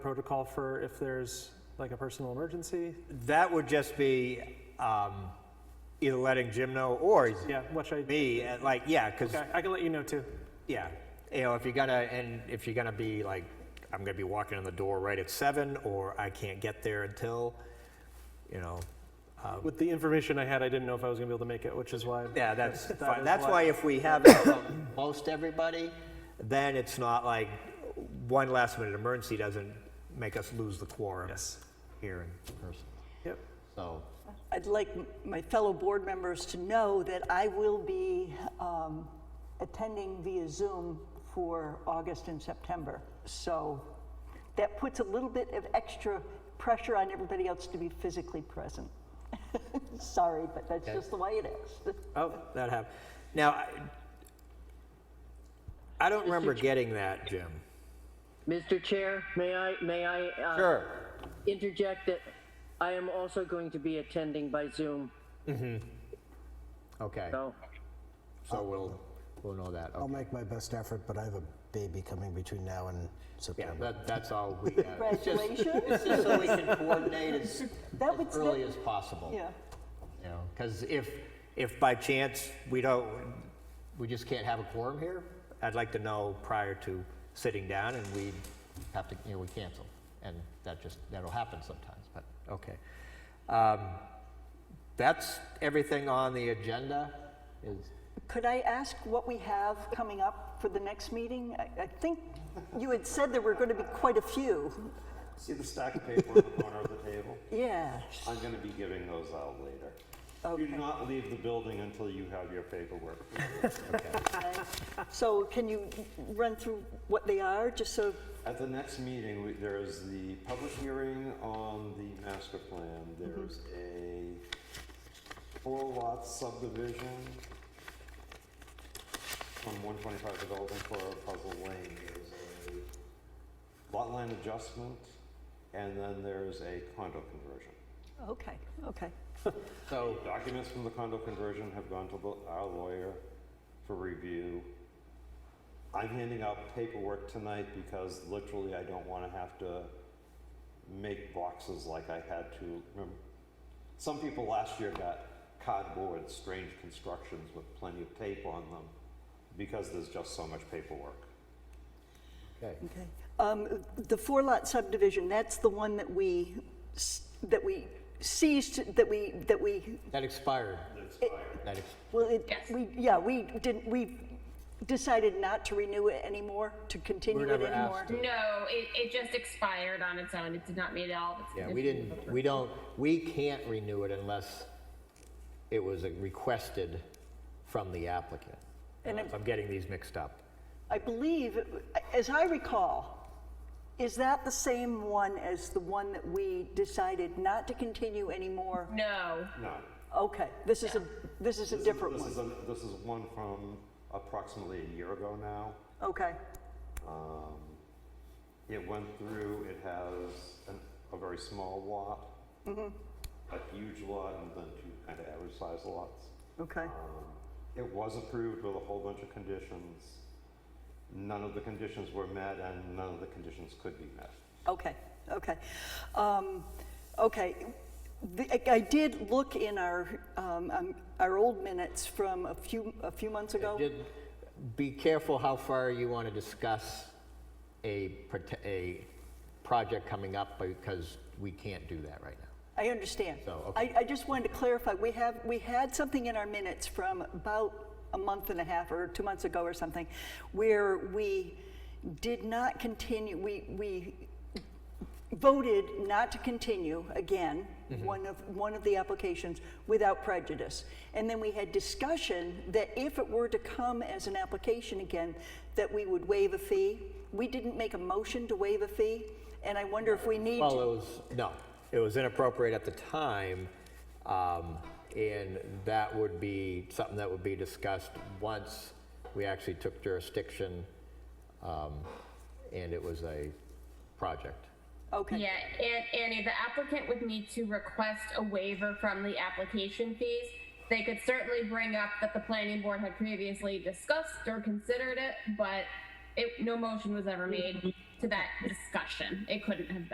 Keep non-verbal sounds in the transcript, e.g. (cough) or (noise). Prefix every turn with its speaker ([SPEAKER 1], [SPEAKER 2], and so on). [SPEAKER 1] protocol for if there's like a personal emergency?
[SPEAKER 2] That would just be um, either letting Jim know or
[SPEAKER 1] Yeah, which I,
[SPEAKER 2] me, uh, like, yeah, because,
[SPEAKER 1] okay, I can let you know too.
[SPEAKER 2] yeah, you know, if you're gonna, and if you're gonna be like, I'm gonna be walking in the door right at seven, or I can't get there until, you know,
[SPEAKER 1] With the information I had, I didn't know if I was gonna be able to make it, which is why.
[SPEAKER 2] yeah, that's,
[SPEAKER 1] That
[SPEAKER 2] fine.
[SPEAKER 1] is
[SPEAKER 2] that's
[SPEAKER 1] why-
[SPEAKER 2] why if we have it for most everybody, then it's not like one last minute emergency doesn't make us lose the quorum.
[SPEAKER 1] Yes.
[SPEAKER 2] Here in person,
[SPEAKER 1] Yep.
[SPEAKER 2] so.
[SPEAKER 3] I'd like m- my fellow board members to know that I will be um, attending via Zoom for August and September. So that puts a little bit of extra pressure on everybody else to be physically present. (laughs) Sorry, but that's just the way it is.
[SPEAKER 2] Oh, that happened. Now, I, I don't remember getting that, Jim.
[SPEAKER 4] Mr. Chair, may I, may I uh,
[SPEAKER 2] Sure.
[SPEAKER 4] interject that I am also going to be attending by Zoom,
[SPEAKER 2] Okay,
[SPEAKER 4] so
[SPEAKER 2] so we'll, we'll know that.
[SPEAKER 5] I'll
[SPEAKER 2] Okay.
[SPEAKER 5] make my best effort, but I have a baby coming between now and
[SPEAKER 2] Yeah,
[SPEAKER 5] September.
[SPEAKER 2] that, that's all we have. It's just-
[SPEAKER 3] Congratulations.
[SPEAKER 2] It's just so we can coordinate as,
[SPEAKER 3] That
[SPEAKER 2] as
[SPEAKER 3] would-
[SPEAKER 2] early as possible.
[SPEAKER 3] (laughs) Yeah,
[SPEAKER 2] You know, because if, if by chance we don't, we just can't have a quorum here, I'd like to know prior to sitting down and we have to, you know, we cancel. And that just, that'll happen sometimes, but, okay. Um, That's everything on the agenda is,
[SPEAKER 3] Could I ask what we have coming up for the next meeting? I I think you had said there were going to be quite a few.
[SPEAKER 6] See the stack of paper in the corner of the table?
[SPEAKER 3] Yeah,
[SPEAKER 6] I'm gonna be giving those out later. You
[SPEAKER 3] okay.
[SPEAKER 6] do not leave the building until you have your paperwork.
[SPEAKER 3] So can you run through what they are, just so,
[SPEAKER 6] At the next meeting, we- there is the public hearing on the master plan. There's a four lot subdivision from one twenty-five development for Puzzle Lane. There's a lot line adjustment, and then there's a condo conversion.
[SPEAKER 3] Oh, okay, okay.
[SPEAKER 2] so,
[SPEAKER 6] Documents from the condo conversion have gone to the- our lawyer for review. I'm handing out paperwork tonight because literally I don't want to have to make boxes like I had to. Remember, some people last year got cardboard, strange constructions with plenty of tape on them because there's just so much paperwork.
[SPEAKER 2] okay.
[SPEAKER 3] Okay. Um, The four-lot subdivision, that's the one that we, s- that we ceased, that we, that we,
[SPEAKER 2] That expired.
[SPEAKER 3] it-
[SPEAKER 2] That ex-
[SPEAKER 3] well, it, we, yeah, we didn't, we decided not to renew it anymore, to continue it
[SPEAKER 2] never
[SPEAKER 3] anymore.
[SPEAKER 2] asked to.
[SPEAKER 7] No, it, it just expired on its own. It did not meet all of its
[SPEAKER 2] Yeah, we
[SPEAKER 7] conditions.
[SPEAKER 2] didn't, we don't, we can't renew it unless it was requested from the applicant.
[SPEAKER 3] And it-
[SPEAKER 2] If I'm getting these mixed up.
[SPEAKER 3] I believe, as I recall, is that the same one as the one that we decided not to continue anymore?
[SPEAKER 7] No,
[SPEAKER 6] No.
[SPEAKER 3] Okay, this is a, this is a
[SPEAKER 6] This is-
[SPEAKER 3] different
[SPEAKER 6] this
[SPEAKER 3] one.
[SPEAKER 6] is a- This is one from approximately a year ago now.
[SPEAKER 3] Okay,
[SPEAKER 6] Um, It went through, it has an, a very small lot, a huge lot, and then two kind of average sized lots.
[SPEAKER 3] okay.
[SPEAKER 6] It was approved with a whole bunch of conditions. None of the conditions were met, and none of the conditions could be met.
[SPEAKER 3] Okay, okay. Um, Okay, The- I- I did look in our, um, um, our old minutes from a few, a few months ago.
[SPEAKER 2] Did- Be careful how far you want to discuss a, prote- a project coming up because we can't do that right now.
[SPEAKER 3] I understand.
[SPEAKER 2] So,
[SPEAKER 3] I, I just wanted to clarify, we have, we had something in our minutes from about a month and a half or two months ago or something, where we did not continue, we, we voted not to continue again,
[SPEAKER 2] Mm-hmm.
[SPEAKER 3] one of, one of the applications without prejudice. And then we had discussion that if it were to come as an application again, that we would waive a fee. We didn't make a motion to waive a fee, and I wonder if we need to.
[SPEAKER 2] Well, it was, no, it was inappropriate at the time. um, And that would be something that would be discussed once we actually took jurisdiction um, and it was a project.
[SPEAKER 3] Okay.
[SPEAKER 7] yeah, and Annie, the applicant would need to request a waiver from the application fees. They could certainly bring up that the planning board had previously discussed or considered it, but it, no motion was ever made. to that discussion. It couldn't have been.